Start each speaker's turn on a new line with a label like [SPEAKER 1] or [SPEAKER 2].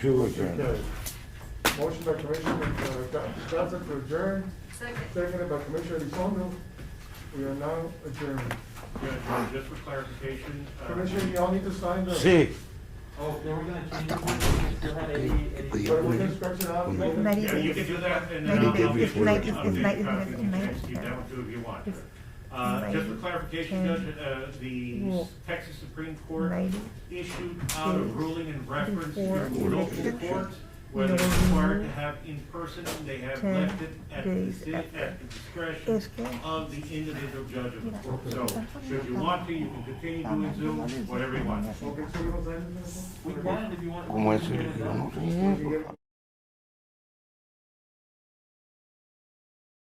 [SPEAKER 1] To
[SPEAKER 2] Motion
[SPEAKER 1] adjourn.
[SPEAKER 2] carried. Motion by Commissioner uh, Ga- Gaza to adjourn,
[SPEAKER 3] Second.
[SPEAKER 2] seconded by Commissioner Elizondo. We are now adjourned.
[SPEAKER 4] Yeah, Just for clarification. uh,
[SPEAKER 2] Commissioner, y'all need to sign the.
[SPEAKER 1] Sí.
[SPEAKER 5] Oh, then we're gonna change the one, we still had eighty, eighty.
[SPEAKER 2] But we're gonna stretch it out.
[SPEAKER 1] Ninety
[SPEAKER 4] Yeah, you can do that, and then I'll,
[SPEAKER 1] Ninety
[SPEAKER 4] I'll
[SPEAKER 1] days,
[SPEAKER 4] get you an
[SPEAKER 1] ninety- it's
[SPEAKER 4] updated
[SPEAKER 6] ninety
[SPEAKER 4] copy,
[SPEAKER 6] minutes,
[SPEAKER 4] you can
[SPEAKER 6] ninety-
[SPEAKER 4] keep that one too if you want.
[SPEAKER 6] It's-
[SPEAKER 4] Uh, just for
[SPEAKER 6] ninety,
[SPEAKER 4] clarification,
[SPEAKER 6] ten,
[SPEAKER 4] Judge, uh, the
[SPEAKER 6] rule.
[SPEAKER 4] Texas Supreme Court
[SPEAKER 6] Ninety.
[SPEAKER 4] issued out a
[SPEAKER 6] days,
[SPEAKER 4] ruling in reference to
[SPEAKER 6] before
[SPEAKER 4] local
[SPEAKER 6] election.
[SPEAKER 4] courts, where they're
[SPEAKER 6] No
[SPEAKER 4] required to
[SPEAKER 6] more
[SPEAKER 4] have in person, they have
[SPEAKER 6] ten
[SPEAKER 4] left it at the,
[SPEAKER 6] days
[SPEAKER 4] ci-
[SPEAKER 6] after.
[SPEAKER 4] at the discretion
[SPEAKER 6] Es que
[SPEAKER 4] of the individual judge of the
[SPEAKER 6] Mira,
[SPEAKER 4] court.
[SPEAKER 6] están
[SPEAKER 4] So,
[SPEAKER 6] poniendo
[SPEAKER 4] should you want to, you can continue doing Zoom, whatever you want.
[SPEAKER 2] Okay, so we don't sign this?
[SPEAKER 5] We
[SPEAKER 2] anymore?
[SPEAKER 5] can, if you want.
[SPEAKER 1] ¿Cómo es? el- Yo no sé.
[SPEAKER 2] We can get-